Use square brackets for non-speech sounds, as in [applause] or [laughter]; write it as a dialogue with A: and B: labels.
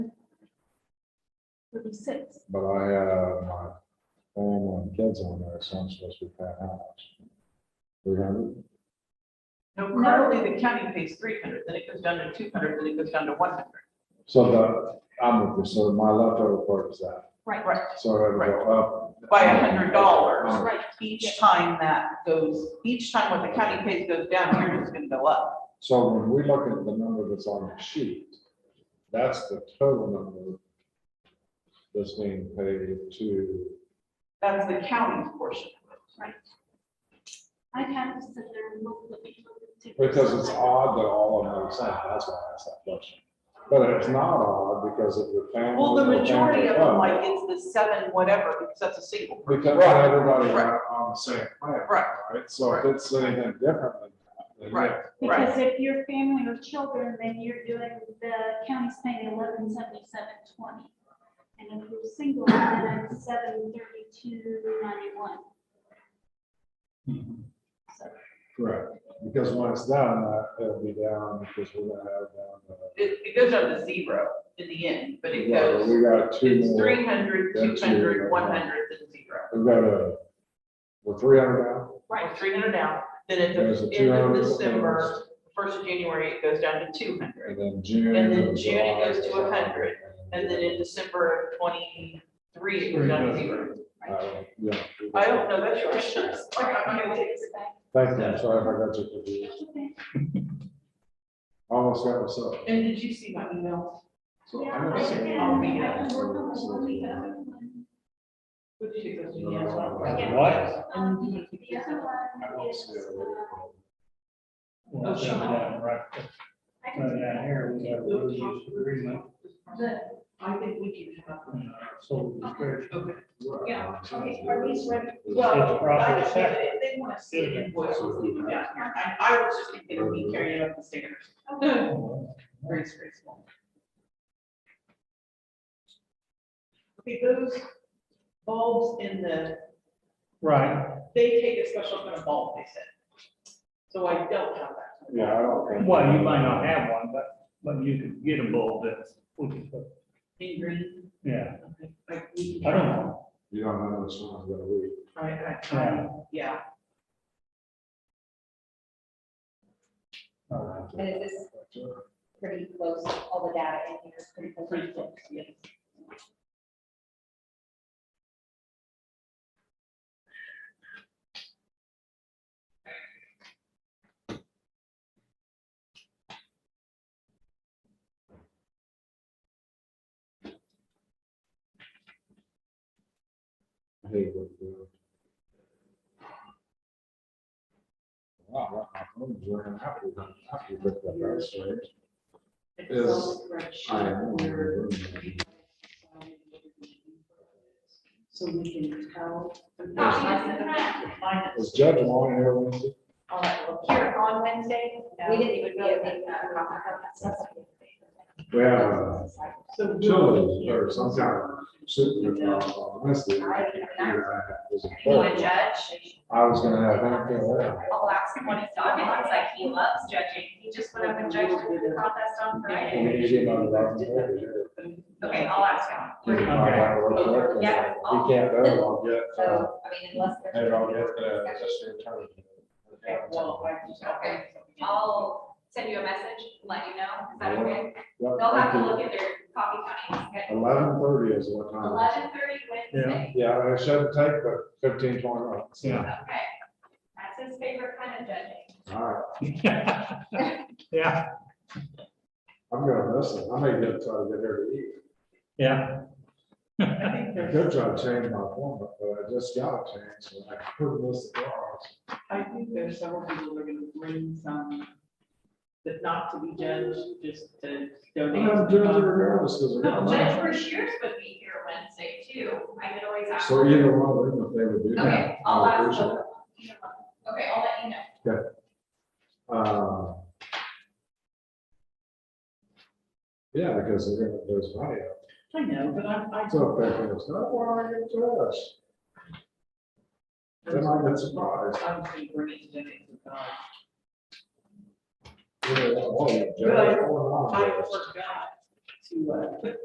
A: Thirty-six.
B: but I have my family and kids on there, so I'm supposed to pay how much? Three hundred?
C: No, currently the county pays three hundred, then it goes down to two hundred, then it goes down to one hundred.
B: So the, I'm with you, so my leftover part is that,
A: Right.
C: Right,
B: so it'll go up.
C: by hundred dollars.
A: Right.
C: Each time that goes, each time what the county pays goes down, yours is gonna go up.
B: So when we look at the number that's on the sheet, that's the total number that's being paid to,
C: That's the county's portion.
A: I had to sit there and look at the.
B: because it's odd that all of them are the same, that's why I asked that question. But it's not odd because of the family.
C: Well, the majority of them,
B: family.
C: like, it's the seven whatever, because that's a single.
B: Because
C: Right.
B: everybody
C: Right.
B: on the same plan.
C: Right.
B: Right, so if it's anything different than that. then
C: Right.
A: Because if you're family or children, then you're doing, the county's paying eleven seventy-seven twenty. And if you're single, then it's seven thirty-two ninety-one.
B: Correct, because when it's down, that, it'll be down, because we're gonna have down. uh,
C: It, it goes down to zero in the end, but it
B: yeah, but
C: goes,
B: We got two
C: it's
B: more,
C: three hundred,
B: Then
C: two
B: two,
C: hundred,
B: right.
C: one hundred, then zero.
B: we got a, we're three hundred down,
C: Right, three hundred down, then at
B: There's a
C: the end of
B: 200.
C: December, first of January, it goes down to two
B: and
C: hundred.
B: then June.
C: And then
B: goes
C: June, it
B: July,
C: goes to a hundred, And then in
B: it.
C: December of twenty-three, it goes down to zero.
B: Uh, Yeah.
C: I don't know, that's your [laughs]
B: Thank you, I'm sorry if I got you confused, almost got myself.
C: And did you see my email?
B: So I'm gonna say-
C: Yeah, I did. I What did you go
B: No,
C: to?
B: no, no, no.
A: Yeah.
D: What?
A: Um, The other
B: I
A: one
B: won't
A: is,
B: say a
A: uh,
B: word.
D: Well,
C: sure.
D: down, right,
A: I
D: down
A: can-
D: here, we got a road use agreement,
A: the,
C: I think we can have.
D: and, uh, so the church,
C: Okay.
A: yeah, okay, are these ready?
D: It's properly
C: I-
D: separate.
C: They want to see the invoice, we'll leave it down here. I, I was just thinking of me carrying up the stickers.
A: Okay.
C: Very graceful. Okay, those bulbs in the,
D: right,
C: they take a special kind of bulb, they said. So I don't have that.
B: Yeah, I don't think.
D: well, you might not have one, but, but you could get a bulb that's,
C: In green.
D: yeah,
C: okay, like we-
D: I don't know. [laughs]
B: You don't know which one's gonna be.
C: I, I, I, yeah.
E: And is this pretty close, all the data in here is pretty close?
C: Pretty close, yes.
B: Hey, what the- Wow, that- I'm enjoying that. Happy- happy with that, that's right. Is- I am.
C: So we can tell.
B: Is Judge Long here Lindsay?
E: Here on Wednesday? We didn't even get a big, uh,
B: We have uh,
C: So.
B: chili or some kind of soup with, uh, on Wednesday. And I had- was a
E: You want to
B: clerk.
E: judge?
B: I was gonna have him fill in.
E: I'll ask him what his dog is like. He loves judging. He just went up and judged the contest on Friday.
B: We need to get him on the record here.
E: Okay, I'll ask him.
B: He might have to work with it.
E: Yeah.
B: He can't do it, I'll get, uh,
E: So, I mean, unless there's.
B: Hey, I'll get, uh, just your attorney.
C: Well, I just.
E: I'll send you a message, let you know. Is that okay?
B: Yep,
E: They'll have to
B: thank you.
E: look at their coffee county. schedule.
B: Eleven thirty is what time? it is.
E: Eleven thirty Wednesday.
B: Yeah, it shouldn't take but fifteen, twenty minutes.
D: Yeah.
E: Okay. That's his favorite kind of judging.
B: All right,
D: Yeah,
B: I'm gonna miss it. I may get, try to get here to eat.
D: yeah.
B: I could try to change my appointment, but uh, I just got a chance, so I could miss the class.
C: I think there's several people that are gonna bring some, that not to be judged, just to donate.
B: I'm doing it regardless, because I got
E: No, Judge
B: money.
E: Brashears would be here Wednesday too. I could always ask.
B: So
E: her.
B: either one of them, if they would do that.
E: Okay,
B: I
E: I'll
B: would
E: ask.
B: appreciate it.
E: her. Okay, I'll let you know.
B: Uh, Yeah, because they're gonna, there's money. out
C: I know, but I'm, I.
B: there. So if they're gonna start, why don't I get to us? Then I get surprised.
C: I'm just gonna bring it to donate to God.
B: Yeah, well, you-
C: Really?
B: Oh, no.
C: I forgot to, uh, put